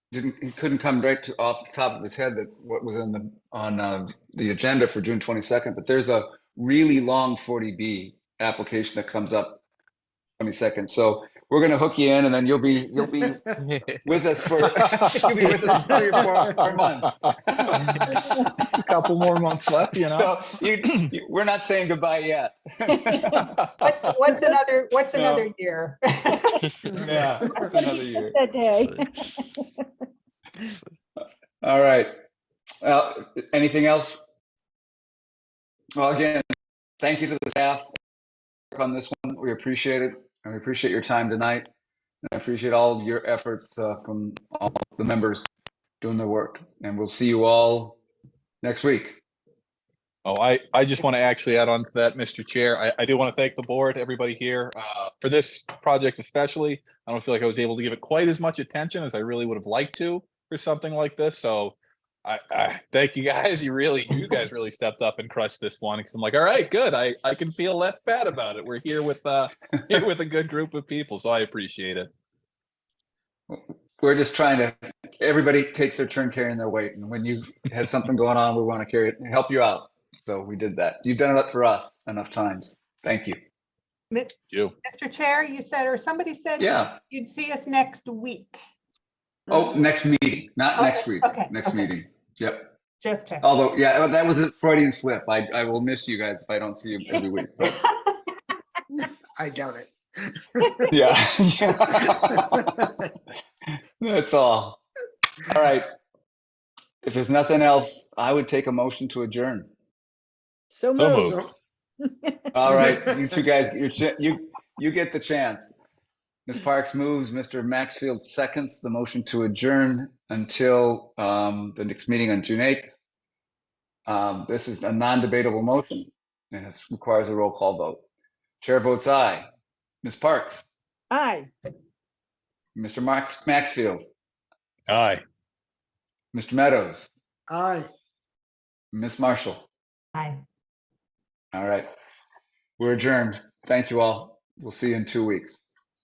didn't he couldn't come right to, off the top of his head that what was on the on uh, the agenda for June 22nd, but there's a really long 40B application that comes up 22nd. So we're gonna hook you in, and then you'll be you'll be with us for you'll be with us for three or four more months. Couple more months left, you know? So you, you, we're not saying goodbye yet. What's, what's another, what's No. another year? yeah, it's another year. That day. That's fine. All right. Well, anything else? Well, again, thank you to the staff on this one. We appreciate it. And we appreciate your time tonight. And I appreciate all of your efforts uh, from all the members doing their work. And we'll see you all next week. Oh, I, I just want to actually add on to that, Mr. Chair. I, I do want to thank the board, everybody here, uh, for this project especially. I don't feel like I was able to give it quite as much attention as I really would have liked to for something like this, so I, I, thank you guys. You really, you guys really stepped up and crushed this one. Cause I'm like, all right, good. I, I can feel less bad about it. We're here with, uh, here with a good group of people, so I appreciate it. We're just trying to, everybody takes their turn carrying their weight. And when you have something going on, we want to carry it and help you out. So we did that. You've done it up for us enough times. Thank you. Mi- You. Mr. Chair, you said, or somebody said Yeah. you'd see us next week. Oh, next meeting, not Mm-hmm. Okay, next week, okay, next okay. meeting. Yep. Just check. Although, yeah, well, that was a Freudian slip. I, I will miss you guys if I don't see you every week. but- I doubt it. Yeah. That's all. All right. If there's nothing else, I would take a motion to adjourn. So So moved. moved. All right, you two guys, get your cha- you, you get the chance. Ms. Parks moves, Mr. Maxfield seconds the motion to adjourn until um, the next meeting on June 8th. Um, This is a non-debatable motion, and it requires a roll call vote. Chair votes aye. Ms. Parks, Aye. Mr. Max Maxfield, Aye. Mr. Meadows, Aye. Ms. Marshall. Bye. All right, we're adjourned. Thank you all. We'll see you in two weeks.